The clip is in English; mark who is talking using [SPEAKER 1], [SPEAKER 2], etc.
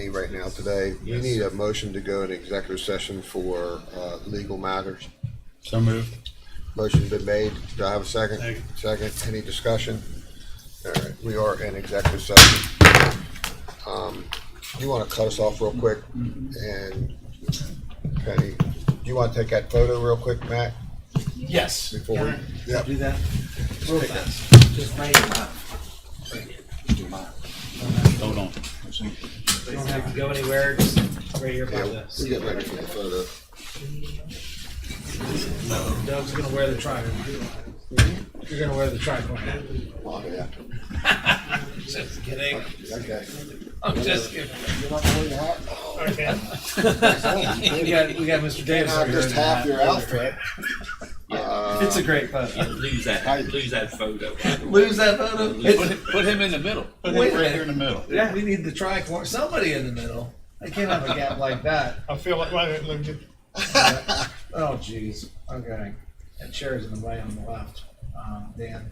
[SPEAKER 1] right now today. You
[SPEAKER 2] Yes.
[SPEAKER 1] need a motion to go in executive session for uh, legal matters.
[SPEAKER 2] So moved.
[SPEAKER 1] Motion's been made. Do I have a second?
[SPEAKER 2] Second.
[SPEAKER 1] Second. Any discussion? All right, we are in executive session. Um, You want to cut us off real quick? And Penny, do you want to take that photo real quick, Matt?
[SPEAKER 2] Yes.
[SPEAKER 1] Before we, yeah,
[SPEAKER 3] Do that. Real fast. Just write it up.
[SPEAKER 2] Hold on.
[SPEAKER 3] You don't have to go anywhere, just right here by
[SPEAKER 1] yeah, we're
[SPEAKER 3] the.
[SPEAKER 1] getting ready for the photo.
[SPEAKER 3] Doug's gonna wear the tripod. You're gonna wear the tripod.
[SPEAKER 1] Oh, yeah.
[SPEAKER 3] Just kidding.
[SPEAKER 1] Okay.
[SPEAKER 3] I'm just kidding.
[SPEAKER 1] You're not going to have,
[SPEAKER 3] Okay. We got, we got Mr. Davis over here.
[SPEAKER 1] just half your outfit.
[SPEAKER 3] It's a great photo.
[SPEAKER 4] Lose that, lose that photo.
[SPEAKER 3] Lose that photo?
[SPEAKER 4] Put,
[SPEAKER 3] It's-
[SPEAKER 4] put him in the middle.
[SPEAKER 2] Put
[SPEAKER 3] Wait
[SPEAKER 2] it right
[SPEAKER 3] a minute.
[SPEAKER 2] here in the middle.
[SPEAKER 3] Yeah, we need the tricorn, somebody in the middle. I can't have a gap like that.
[SPEAKER 5] I feel like, wait, a minute, let me get-
[SPEAKER 3] Oh, jeez. Okay. That chair's in the way on the left. Um, Dan.